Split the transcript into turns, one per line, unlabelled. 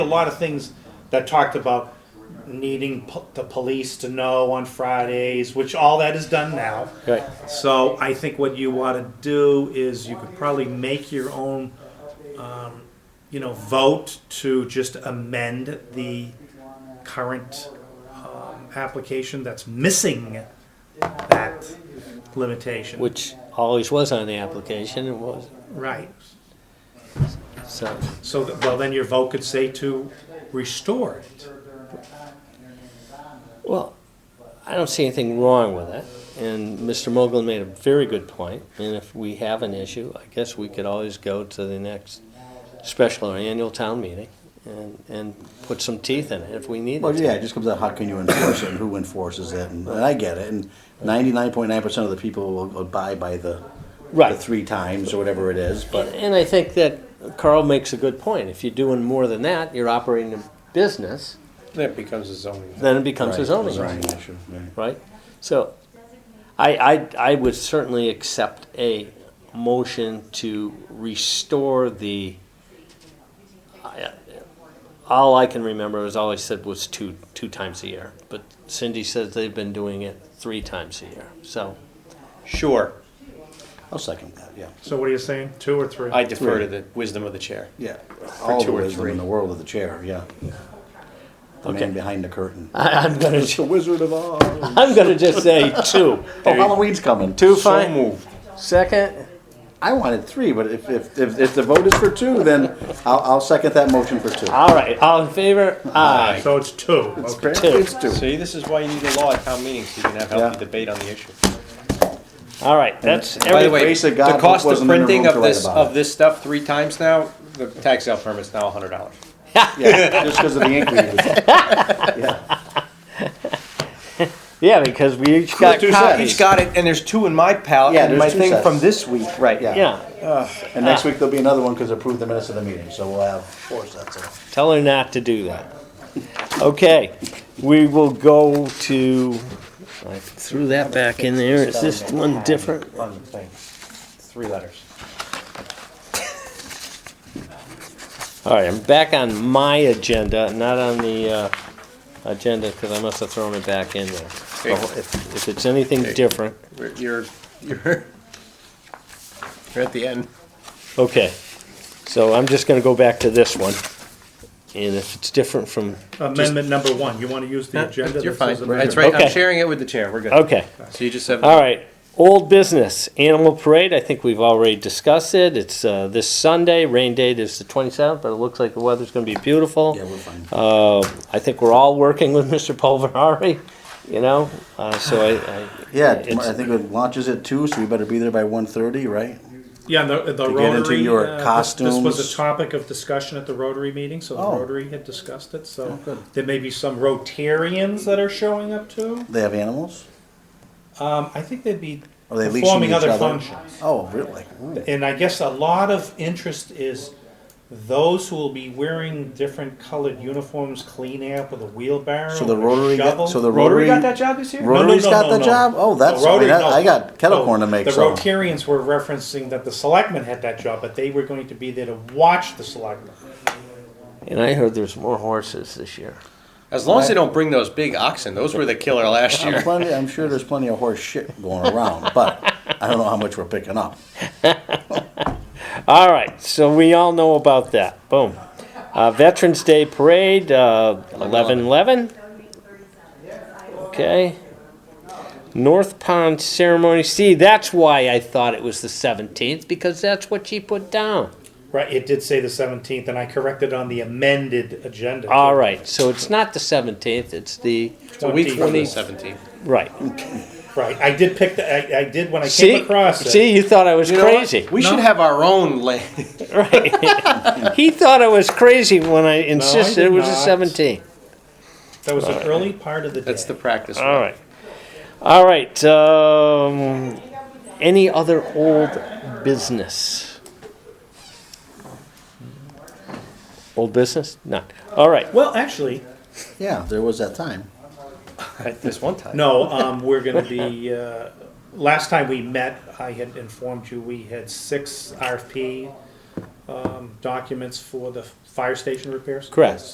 a lot of things that talked about needing po- the police to know on Fridays, which all that is done now.
Right.
So I think what you ought to do is you could probably make your own, um, you know, vote to just amend the current um, application that's missing that limitation.
Which always was on the application, it was,
right.
so,
So, th- well, then your vote could say to restore it.
well, I don't see anything wrong with it. And Mr. Mogul made a very good point, and if we have an issue, I guess we could always go to the next special or annual town meeting and, and put some teeth in it if we need
Well,
it.
yeah, it just comes out, how can you enforce it and who enforces it? And, and I get it. And ninety-nine point nine percent of the people will abide by the, the
Right.
three times or whatever it is,
But,
but
and I think that Carl makes a good point. If you're doing more than that, you're operating a business,
That becomes a zoning.
then it becomes a
Right,
zoning issue.
zoning issue. Right.
right? So, I, I, I would certainly accept a motion to restore the, I- all I can remember is all I said was two, two times a year, but Cindy says they've been doing it three times a year, so, sure,
I'll second that, yeah.
So what are you saying, two or three?
I defer to the wisdom of the chair.
Yeah. All
two
the
or
wisdom
three.
in the world of the chair, yeah. The
Okay.
man behind the curtain.
I, I'm gonna,
It's the Wizard of Oz. Oh,
I'm gonna just say two.
Halloween's coming.
Oh, Two,
So
fine,
moved.
second,
I wanted three, but if, if, if, if the vote is for two, then I'll, I'll second that motion for two.
all right, all in favor? Aye.
So it's two,
It's
okay.
fair, It's two.
See, this is why you need a law at town meetings, so you can have
Yeah.
healthy debate on the issue.
All right, that's
By the
everything,
way,
grace of
the
God,
cost
Luke
of
wasn't in the
printing
room to
of
write
this,
about it.
of this stuff three times now, the tax sale permit's now a hundred dollars.
Yeah, just because of the ink we used. Yeah.
yeah, because we each got copies.
Each got it, and there's two in my palette,
Yeah,
and my
there's two
thing
sets.
from this week, right,
Yeah. Uh,
Yeah.
And next week there'll be another one because approved the minutes of the meeting, so we'll have four sets of.
Tell her not to do that. Okay, we will go to, I threw that back in there, is this one different?
On the thing. Three letters.
All right, I'm back on my agenda, not on the, uh, agenda, because I must have thrown it back in there. So
Okay.
if, if it's anything
Okay.
different,
You're, you're, you're at the end.
okay. So I'm just gonna go back to this one. And if it's different from,
Amendment number one, you want to use the agenda?
You're
that
fine,
says amendment?
that's right, I'm
Okay.
sharing it with the chair, we're good.
okay.
So you just have.
All right, old business, animal parade, I think we've already discussed it, it's, uh, this Sunday, rain date is the twenty-seventh, but it looks like the weather's gonna be beautiful.
Yeah, we're fine.
Uh, I think we're all working with Mr. Pulverari, you know, uh, so I, I.
Yeah,
it's-
tomorrow- I think it launches at two, so we better be there by one thirty, right?
Yeah, and the, the
To get into
Rotary,
your
uh, this- this was
costumes.
a topic of discussion at the Rotary meeting, so the
Oh.
Rotary had discussed it, so there may be some Rotarians that are showing up too.
They have animals?
Um, I think they'd be
Are they leashing
performing
each
other
other?
functions.
Oh, really? Ooh.
And I guess a lot of interest is those who will be wearing different colored uniforms, clean up with a wheelbarrow.
So the
and a
Rotary got-
shovel.
so the Rotary-
got that job this year.
Rotary's got that job? Oh, that's- I mean, that- I got kettle corn to make,
The
so-
Rotarians were referencing that the selectmen had that job, but they were going to be there to watch the selectmen.
And I heard there's more horses this year.
As long as they don't bring those big oxen, those were the killer last
I'm
year.
plenty, I'm sure there's plenty of horse shit going around, but I don't know how much we're picking up.
All right, so we all know about that, boom. Uh, Veterans Day Parade, uh, eleven eleven. Okay. North Pond Ceremony, see, that's why I thought it was the seventeenth, because that's what she put down.
Right, it did say the seventeenth, and I corrected on the amended agenda.
All right, so it's not the seventeenth, it's the,
A week from the
20th.
seventeenth.
right.
Right, I did pick the, I, I did when I
See,
came across it.
see, you thought I was
You know what?
crazy.
We
No.
should have our own land.
Right. he thought I was crazy when I insisted
did
it was a
not.
17.
That was an early part of the day.
That's the practice.
All right. All right. Um, any other old business? Old business? None. All right.
Well, actually,
Yeah, there was that time.
At this one time.
no, um, we're gonna be, uh, last time we met, I had informed you we had six RFP, um, documents for the fire station repairs.
Correct.